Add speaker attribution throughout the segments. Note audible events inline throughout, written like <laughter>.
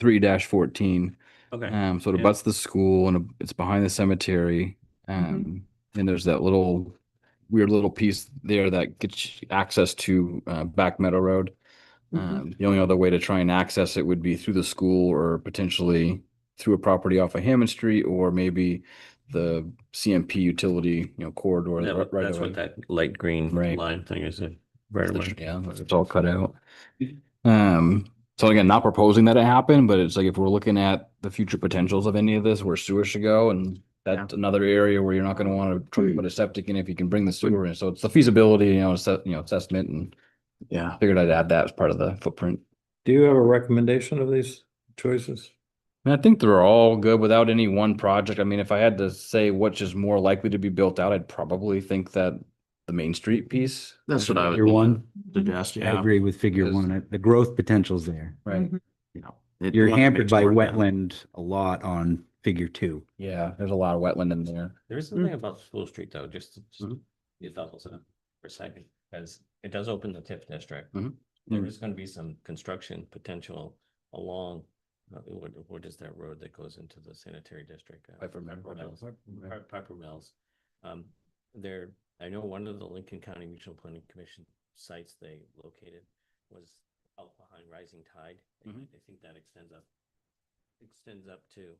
Speaker 1: three dash fourteen.
Speaker 2: Okay.
Speaker 1: Um, so it
Speaker 2: Yeah.
Speaker 1: abuts the school and it's behind the cemetery. Um, and there's that little weird little piece there that gets you access to uh, Back Meadow Road.
Speaker 3: Mhm.
Speaker 1: Um, the only other way to try and access it would be through the school or potentially through a property off of Hammond Street or maybe the CMP utility, you know, corridor.
Speaker 2: That-
Speaker 1: right- right
Speaker 2: That's
Speaker 1: away.
Speaker 2: what that light green
Speaker 1: Right.
Speaker 2: line thing is. uh, it- Right
Speaker 1: It's
Speaker 2: away.
Speaker 1: the- Yeah, it's all cut out. Um, so again, not proposing that it happen, but it's like if we're looking at the future potentials of any of this, where sewer should go and that's another area where you're not gonna wanna try
Speaker 4: Mm-hmm.
Speaker 1: to put a septic in if you can bring the sewer in. So it's the feasibility, you know, assess, you know, assessment and
Speaker 4: Yeah.
Speaker 1: figured I'd add that as part of the footprint.
Speaker 5: Do you have a recommendation of these choices?
Speaker 1: And I think they're all good without any one project. I mean, if I had to say which is more likely to be built out, I'd probably think that the Main Street piece.
Speaker 4: That's what I would.
Speaker 6: Figure one,
Speaker 4: Suggest,
Speaker 6: I
Speaker 4: yeah.
Speaker 6: agree with figure
Speaker 1: Because-
Speaker 6: one. uh, The growth potential's there.
Speaker 1: Right.
Speaker 6: You know,
Speaker 4: It-
Speaker 6: you're
Speaker 4: you have to
Speaker 6: hampered
Speaker 4: mix
Speaker 6: by
Speaker 4: work now.
Speaker 6: wetland a lot on figure two.
Speaker 1: Yeah, there's a lot of wetland in there.
Speaker 2: There is
Speaker 1: mm.
Speaker 2: something about School Street though, just to- just be thoughtful of it for a second, because it does open the TIF district.
Speaker 1: Mhm.
Speaker 2: There
Speaker 1: Mm.
Speaker 2: is gonna be some construction potential along, uh, what, what is that road that goes into the sanitary district? Uh,
Speaker 1: Piper Meadow.
Speaker 2: Mills. Pi- Piper Mills. Um, there, I know one of the Lincoln County Regional Planning Commission sites they located was out behind Rising Tide. and
Speaker 1: Mhm.
Speaker 2: I think that extends up, extends up to,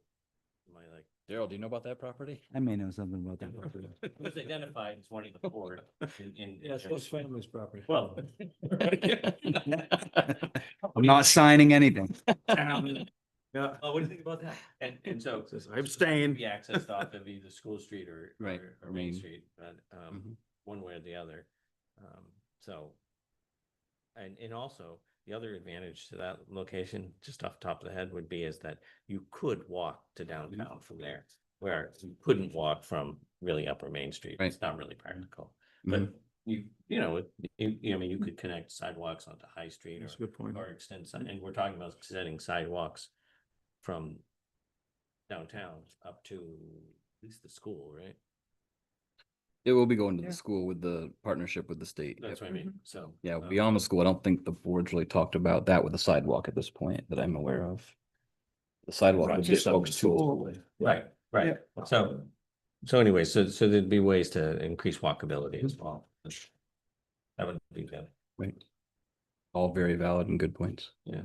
Speaker 2: my like,
Speaker 1: Daryl, do you know about that property?
Speaker 6: I may know something about that.
Speaker 2: it was <laughs> identified as one of the four in, in.
Speaker 5: family's property.
Speaker 2: Well.
Speaker 1: <laughs>
Speaker 2: <laughs>
Speaker 6: I'm not signing anything.
Speaker 5: Yeah.
Speaker 2: Oh, what do you think about that? And, and so.
Speaker 4: Says, "I'm staying."
Speaker 2: Be accessed off of either School Street
Speaker 4: <laughs>
Speaker 2: or.
Speaker 1: Right,
Speaker 2: or-
Speaker 1: or
Speaker 2: Or Main
Speaker 1: Main.
Speaker 2: Street, but,
Speaker 4: Mm-hmm.
Speaker 2: um, one way or the other. Um, so. And, and also, the other advantage to that location, just off the top of the head, would be is that you could walk to downtown from there. Where you couldn't walk from really Upper Main Street.
Speaker 1: Right.
Speaker 2: It's not really practical.
Speaker 4: Mm-hmm.
Speaker 2: But you, you know, it- you, you, I mean, you could connect sidewalks onto High Street
Speaker 4: That's a
Speaker 2: or,
Speaker 4: good
Speaker 1: Mm-hmm.
Speaker 4: point.
Speaker 2: or extend, si- and we're talking about setting sidewalks from downtown up to at least the school, right?
Speaker 1: It will be going to
Speaker 3: Yeah.
Speaker 1: the school with the partnership with the state.
Speaker 2: That's
Speaker 1: Yep.
Speaker 2: what I mean, so.
Speaker 1: Yeah,
Speaker 2: um,
Speaker 1: beyond the school, I don't think the board's really talked about that with the sidewalk at this point that I'm aware of. The sidewalk would be folks too.
Speaker 2: Right, right, so, so anyway, so, so there'd be ways to increase walkability
Speaker 1: Mm-hmm.
Speaker 2: as well. That would be good.
Speaker 1: Right. All very valid and good points.
Speaker 2: Yeah.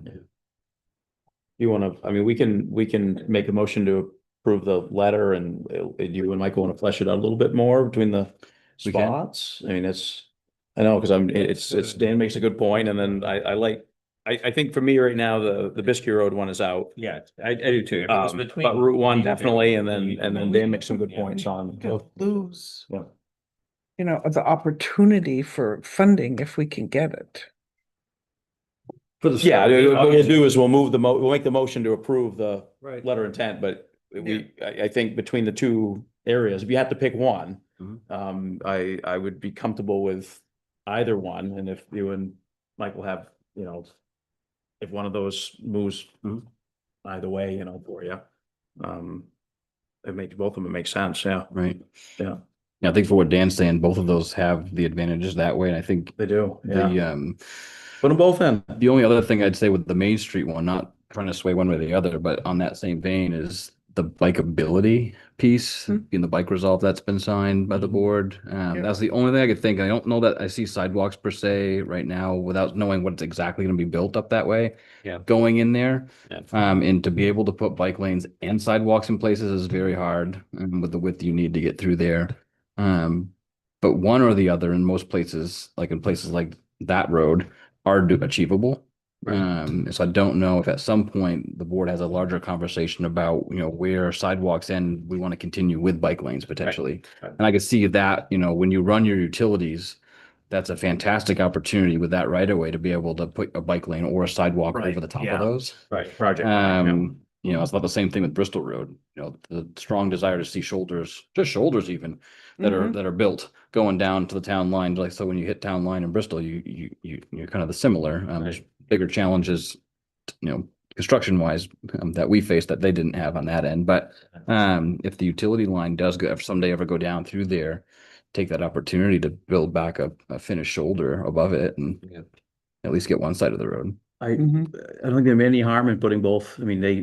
Speaker 7: You wanna, I mean, we can, we can make a motion to approve the letter and uh, you and Michael wanna flesh it out a little bit more between the
Speaker 1: We can.
Speaker 7: spots? I mean, it's, I know, cause I'm, it- it's, it's, Dan makes a good point and then I, I like, I, I think for me right now, the, the Biskie Road one is out.
Speaker 2: Yeah, I, I do too.
Speaker 7: Um, but Route one definitely, and then, and then Dan makes some good points on.
Speaker 3: Could Lose,
Speaker 7: Yeah.
Speaker 3: you know, the opportunity for funding if we can get it.
Speaker 5: For the.
Speaker 7: Yeah,
Speaker 5: start.
Speaker 7: what we'll do is we'll move the mo, we'll make the motion to approve the
Speaker 5: Right.
Speaker 7: letter of intent, but we, I, I think between the two areas, if you had to pick one,
Speaker 1: Mhm.
Speaker 7: um, I, I would be comfortable with either one, and if you and Michael have, you know, if one of those moves
Speaker 1: Mhm.
Speaker 7: either way, you know, for you, um, it makes, both of them make sense, yeah,
Speaker 1: Right.
Speaker 7: Yeah.
Speaker 1: Yeah, I think for what Dan's saying, both of those have the advantages that way. And I think
Speaker 7: they do, yeah.
Speaker 1: the um
Speaker 7: Put them both in.
Speaker 1: The only other thing I'd say with the Main Street one, not trying to sway one way or the other, but on that same vein is the bikeability piece
Speaker 3: Hmm.
Speaker 1: in the bike resolve that's been signed by the board. Um,
Speaker 3: Yeah.
Speaker 1: that's the only thing I could think. I don't know that I see sidewalks per se right now without knowing what's exactly going to be built up that way.
Speaker 2: Yeah.
Speaker 1: Going in there.
Speaker 2: Yeah.
Speaker 1: Um, and to be able to put bike lanes and sidewalks in places is very hard um, with the width you need to get through there. Um, but one or the other in most places, like in places like that road, are do- achievable. Um, so I don't know if at some point the board has a larger conversation about, you know, where sidewalks end, we want to continue with bike lanes potentially.
Speaker 2: Right.
Speaker 1: And I could see that, you know, when you run your utilities, that's a fantastic opportunity with that right of way to be able to put a bike lane or a sidewalk
Speaker 4: Right,
Speaker 1: over the top
Speaker 4: yeah.
Speaker 1: of those.
Speaker 2: Right.
Speaker 4: Project.
Speaker 1: Um, you know, it's about the same thing with Bristol Road, you know, the strong desire to see shoulders, just shoulders even, that are, that are built going down to the town line, like, so when you hit town line in Bristol, you, you, you, you're kind of the similar, um, there's bigger challenges, you know, construction wise, um, that we faced that they didn't have on that end, but, um, if the utility line does go, if someday ever go down through there, take that opportunity to build back a, a finished shoulder above it and
Speaker 2: Yeah.
Speaker 1: at least get one side of the road.
Speaker 7: I, I
Speaker 3: Mhm.
Speaker 7: don't think there'd be any harm in putting both, I mean, they,